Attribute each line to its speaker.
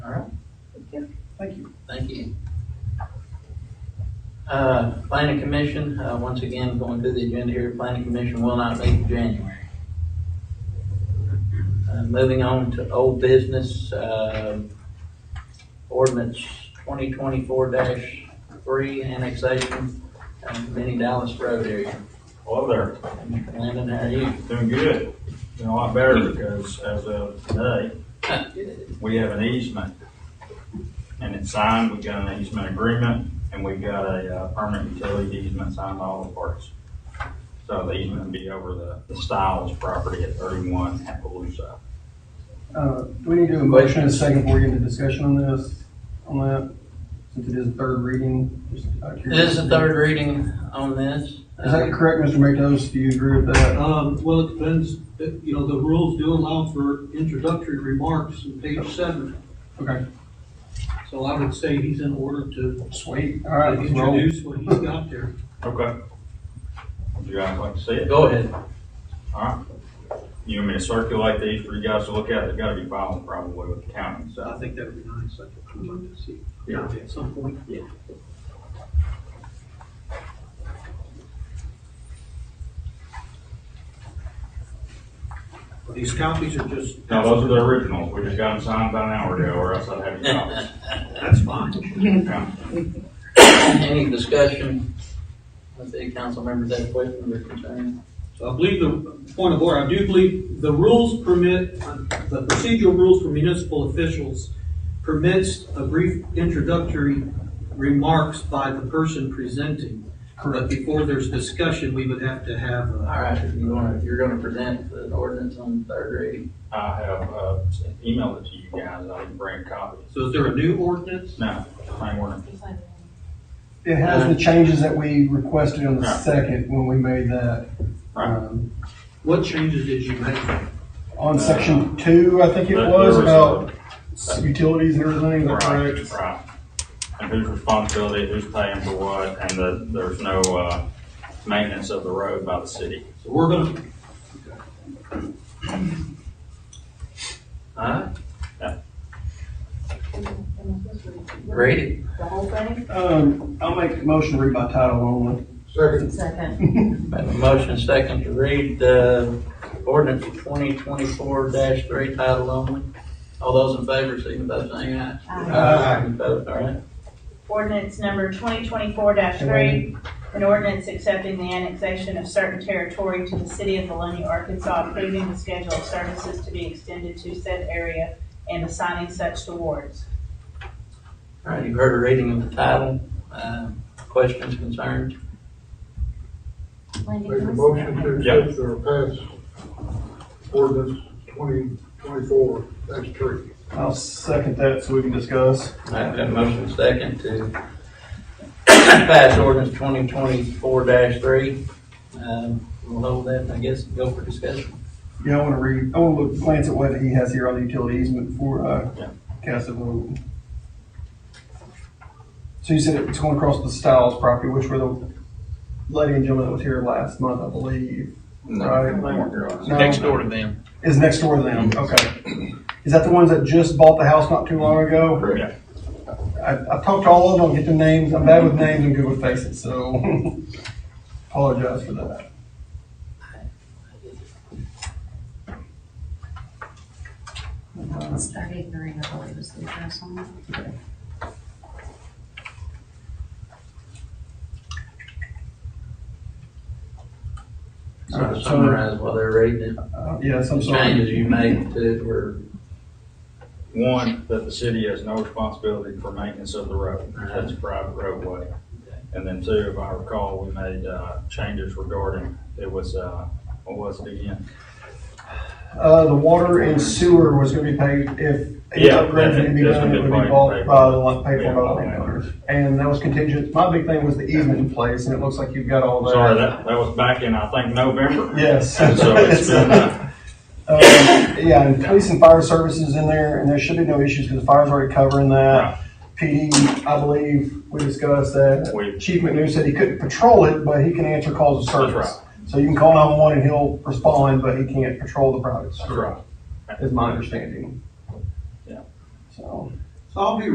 Speaker 1: Thank you. Uh, Planning Commission, uh, once again, going through the agenda here, Planning Commission will not meet in January. Uh, Moving on to old business, um, ordinance twenty twenty-four three, annexation of Mini Dallas Road area.
Speaker 2: Hello there,
Speaker 1: Mr. Landon, how are you?
Speaker 2: doing good, doing a lot better because as of today, we have an easement. And it's signed, we've got an easement agreement, and we've got a uh, permanent utility easement signed by all the parties. So the easement will be over the, the Stiles property at thirty-one Appaloosa.
Speaker 3: Uh, Do we need to do a motion and a second before we get into discussion on this, on that? Since it is a third reading, just out of
Speaker 1: This is
Speaker 3: curiosity.
Speaker 1: the third reading on this. Uh,
Speaker 3: Is that correct, Mr. McDose? Do you agree with that?
Speaker 4: Um, well, it depends, It- you know, the rules do allow for introductory remarks in page seven.
Speaker 3: Okay,
Speaker 4: So I would say he's in order to
Speaker 3: Oh, sweet, all right, let's roll.
Speaker 4: introduce what he's got there.
Speaker 2: Okay. Would you guys like to see it?
Speaker 1: Go ahead.
Speaker 2: All right. You want me to circulate these for you guys to look at? They've got to be filed probably with the county,
Speaker 4: So I
Speaker 2: so.
Speaker 4: think that would be nice, I'd like to see.
Speaker 2: Yeah.
Speaker 4: At some point.
Speaker 2: Yeah.
Speaker 4: But These copies are just.
Speaker 2: Now, those are the originals. We just got them signed about an hour ago, or else I'd have your copies.
Speaker 4: That's fine.
Speaker 2: Yeah.
Speaker 1: Any discussion with the council members that question or concern?
Speaker 4: So I believe the, point of order, I do believe the rules permit, the procedural rules for municipal officials permits a brief introductory remarks by the person presenting. But
Speaker 3: Correct.
Speaker 4: before there's discussion, we would have to have, uh,
Speaker 1: All right, you wanna, you're gonna present the ordinance on third reading.
Speaker 2: I have, uh, emailed it to you guys. I didn't bring a copy.
Speaker 4: so is there a new ordinance?
Speaker 2: No, same order.
Speaker 3: It has the changes that we requested on the
Speaker 2: Right.
Speaker 3: second when we made that.
Speaker 2: Right.
Speaker 3: um,
Speaker 4: What changes did you make?
Speaker 3: On section two, I think it
Speaker 2: There-
Speaker 3: was,
Speaker 2: there
Speaker 3: about utilities and everything, is that
Speaker 2: Right,
Speaker 3: correct?
Speaker 2: right. And whose responsibility, who's paying for what, and the, there's no, uh, maintenance of the road by the city.
Speaker 4: So we're gonna,
Speaker 1: Huh?
Speaker 5: Read
Speaker 1: Read it.
Speaker 5: The whole thing?
Speaker 3: Um, I'll make a motion to read by title only.
Speaker 1: Second.
Speaker 5: Second.
Speaker 1: motion second to read the ordinance twenty twenty-four three title only. All those in favor, signify by saying aye.
Speaker 5: Uh,
Speaker 3: Aye.
Speaker 1: Any Opposed, all right.
Speaker 6: Ordinance number twenty twenty-four three, an ordinance accepting the annexation of certain territory to the city of Bologna, Arkansas, approving the schedule of services to be extended to said area and assigning such awards.
Speaker 1: All right, you've heard a reading of the title. Uh, questions, concerns?
Speaker 7: Make a motion to
Speaker 2: Yeah.
Speaker 7: accept or pass ordinance twenty twenty-four, that's three.
Speaker 3: I'll second that so we can discuss.
Speaker 1: All right, got a motion second to pass ordinance twenty twenty-four three. Um, we'll hold that, I guess, and go for discussion.
Speaker 3: Yeah, I want to read, I want to look, glance at what he has here on the utility easement before
Speaker 2: Yeah.
Speaker 3: I uh, cast a vote. So you said it's going across the Stiles property, which were the lady and gentleman that was here last month, I believe,
Speaker 2: They weren't here last
Speaker 3: No.
Speaker 2: night.
Speaker 8: Next door to them.
Speaker 3: is next door to them, okay. Is that the ones that just bought the house not too long ago?
Speaker 2: Yeah.
Speaker 3: I, I've talked to all of them, I'll get the names, I'm bad with names and good with faces, so apologize for that.
Speaker 5: Start ignoring the whole, it was the address on it.
Speaker 1: So to summarize while they're reading it,
Speaker 3: Uh, Yes,
Speaker 1: the
Speaker 3: I'm sorry.
Speaker 1: changes you made to it were,
Speaker 2: One, that the city has no responsibility for maintenance of the road. That's a private roadway. And then two, if I recall, we made, uh, changes regarding, it was, uh, what was it again?
Speaker 3: Uh, the water and sewer was gonna be paid if any
Speaker 2: Yeah,
Speaker 3: upgrades needed to be
Speaker 2: that's
Speaker 3: done,
Speaker 2: gonna
Speaker 3: it
Speaker 2: be
Speaker 3: would be
Speaker 2: paid-
Speaker 3: bought
Speaker 2: paid
Speaker 3: by
Speaker 2: for.
Speaker 3: the, lot- paid
Speaker 2: Yeah,
Speaker 3: for by the
Speaker 2: by the
Speaker 3: landowners. And that was contingent, my big thing was the easement in place, and it looks like you've got all that.
Speaker 2: Sorry, that, that was back in, I think, November.
Speaker 3: Yes.
Speaker 2: And so it's been, uh,
Speaker 3: Um, Yeah, and police and fire services in there, and there should be no issues, because the fire's already covering
Speaker 2: Right.
Speaker 3: that. PD, I believe, we discussed that.
Speaker 2: we,
Speaker 3: Chief McNew said he couldn't patrol it, but he can answer calls of
Speaker 2: that's
Speaker 3: service.
Speaker 2: right,
Speaker 3: So you can call nine-one-one and he'll respond, but he can't patrol the private
Speaker 2: that's
Speaker 3: street,
Speaker 2: right.
Speaker 3: is my understanding.
Speaker 2: Yeah.
Speaker 3: So.
Speaker 4: so I'll be